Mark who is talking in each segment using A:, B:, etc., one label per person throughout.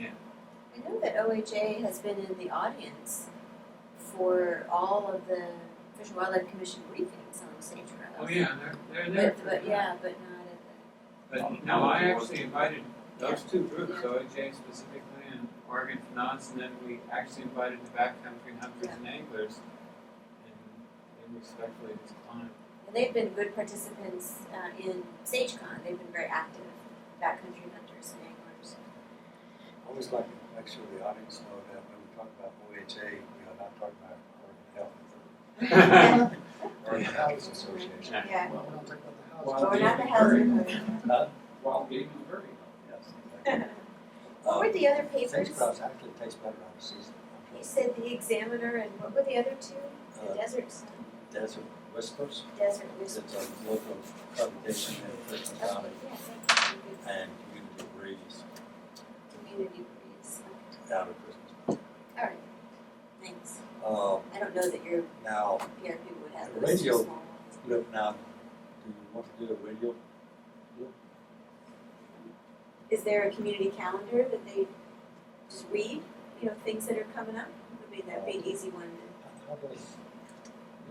A: I know that OHA has been in the audience for all of the Fish and Wildlife Commission briefings on sagebrush.
B: Oh, yeah, they're, they're there.
A: But, but yeah, but not at the,
B: But no, I actually invited those two groups, OJ specifically and Oregon Finance, and then we actually invited the backcountry hunters and anglers. And they respectfully declined.
A: and they've been good participants uh, in SageCon. They've been very active backcountry hunters and anglers.
C: I Always like to make sure the audience know that when we talk about OHA, we are not talking about Oregon Health, the Oregon Housing Association.
A: Yeah.
D: Well, we're not talking about the house.
B: Well,
A: But we're not the
B: Very-
A: housing. hunters.
B: Wild game is very
C: Yes. exactly.
A: What were the other papers?
C: Sagebrush actually tastes better on the season.
A: You said the Examiner, and what were the other two? The
C: Uh,
A: Desert Sun,
C: Desert Whispers,
A: Desert
C: it's
A: Whisper.
C: a local publication in Christian
A: Oh,
C: County
A: yeah, that's a good
C: and Community Breeze
A: community breeze.
C: out of Christmas.
A: All right, thanks.
C: Uh,
A: I don't know that your
C: now,
A: PRP would have
C: The
A: those
C: radio-
A: small ones.
C: look now, do you want to do a radio
A: Is there a community calendar that they just read, you know, things that are coming up? Would be that big easy one.
C: How does,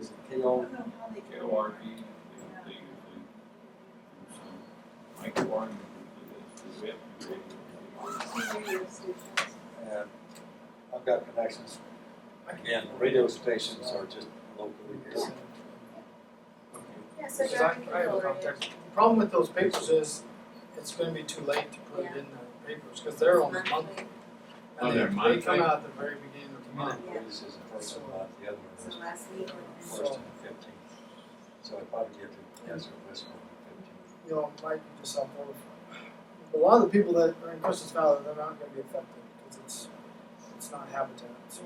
C: is it KO?
E: K O R B, they usually do some, Mike Warren usually does, the whip,
C: And I've got connections. Again, radio stations are just locally.
D: Yes.
A: Yeah, so
D: Because
A: there are
D: I, I have
A: people
D: a
A: already.
D: contact. The problem with those papers is, it's gonna be too late to put it in the papers, cause they're only monthly.
A: Monthly,
B: Oh,
D: And
B: they're
D: they, they come
B: monthly?
D: out at the very beginning of the month.
C: Community release is the first and not the other
A: so
C: one is
A: last week or
C: first and fifteenth. So I probably get to answer this one on
D: You know, it might be just self A lot of the people that are in Christmas Valley, they're not gonna be affected, cause it's, it's not habitat, so.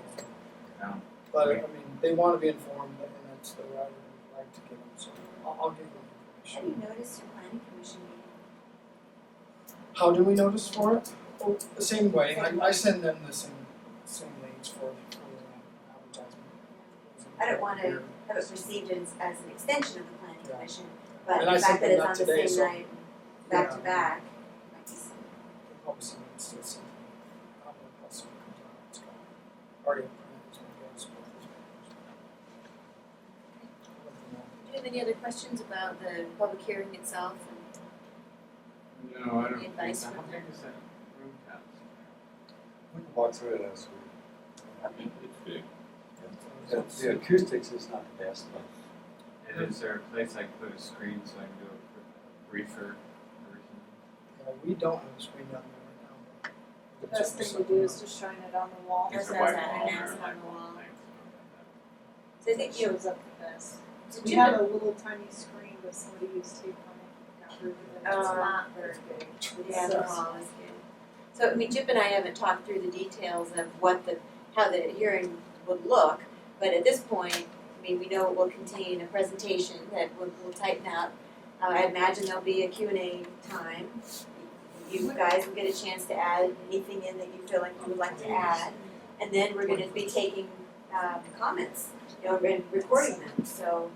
B: Yeah.
D: But, I mean, they wanna be informed, and that's the right, I'd like to give them, so I'll, I'll give them
A: have
D: information.
A: you noticed your planning commission meeting?
D: How do we notice for it? Well, the same way, I, I send them the same, same links for, for the advertisement.
A: I don't wanna- Haven't perceived it as, as an extension of the planning
D: Yeah.
A: commission, but
D: And I
A: the fact
D: sent
A: that
D: them
A: it's
D: that
A: on
D: today,
A: the same
D: so-
A: night, back to
D: Yeah.
A: back, might be some-
D: Obviously, it's, it's, I don't know how soon it um, comes out, it's gone. Already in print, it's gonna go, it's gonna go.
A: Do you have any other questions about the public hearing itself? And
B: low. No, I don't think, I don't
A: Advice from
B: think it's a room tax.
C: We can walk through it as we.
E: it- it's big.
C: The, the acoustics is not the best, but
B: And is there a place I can put a screen so I can do a briefer version?
D: Yeah, we don't have a screen down there right now.
F: The best thing to do is just shine it on the wall.
A: Yes.
B: Is there
A: that was
B: white
A: an
B: wall there,
A: announcement
B: like,
A: on the wall.
B: thanks.
A: so I think you,
F: Shows up the best.
A: to
F: We
A: do
F: had
A: the-
F: a little tiny screen, but somebody used tape on it, got rid of it, it's
A: Oh.
F: not very big.
A: Yeah, the wall is good. So, I mean, Chip and I haven't talked through the details of what the, how the hearing would look, but at this point, I mean, we know it will contain a presentation that we'll, we'll tighten up. Uh, I imagine there'll be a Q and A time. You guys will get a chance to add anything in that you feel like you would like to add. And then we're gonna be taking, uh, comments, you know, and recording them, so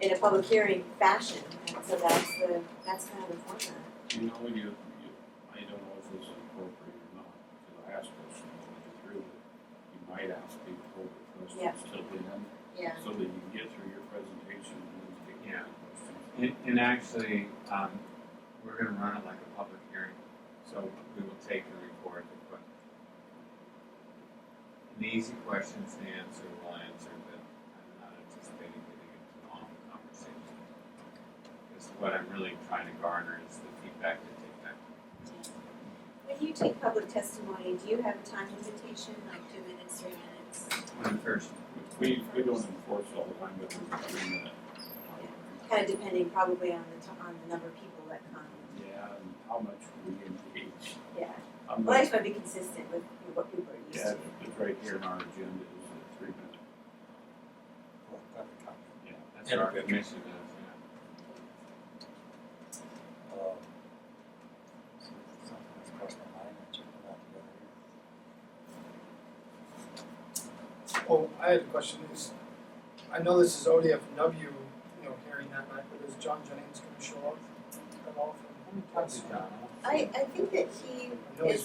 A: in a public hearing fashion. And so that's the, that's kind of the format.
E: You know, when you, you, I don't know if this is appropriate or not, because I asked questions when you through it. You might ask people further
A: Yeah.
E: questions till the end,
A: Yeah.
E: so that you can get through your presentation and then take
B: Yeah.
E: your questions.
B: And, and actually, um, we're gonna run it like a public hearing, so we will take and record the questions. The easy questions to answer, we'll answer, but I'm not anticipating getting into long conversations. Because what I'm really trying to garner is the feedback to take back.
A: When you take public testimony, do you have a time limitation, like two minutes, three minutes?
B: When first,
E: We, we don't enforce all the time, but there's a three minute. uh,
A: Kind of depending probably on the, t- on the number of people that come.
E: Yeah, and how much we engage.
A: Yeah.
E: How
A: Well,
E: much
A: I just want to be consistent with what people are used
E: Yeah,
A: to.
E: it's right here in our agenda is a three minute.
C: well, I've got the copy.
B: yeah, that's what our commission is, yeah.
C: Uh, Something that's crossed my mind, I checked it out the other day.
D: Oh, I had a question, is, I know this is ODFW, you know, hearing that night, but is John Jennings gonna show up at all for the
B: Probably John.
A: I, I think that he
D: I know he's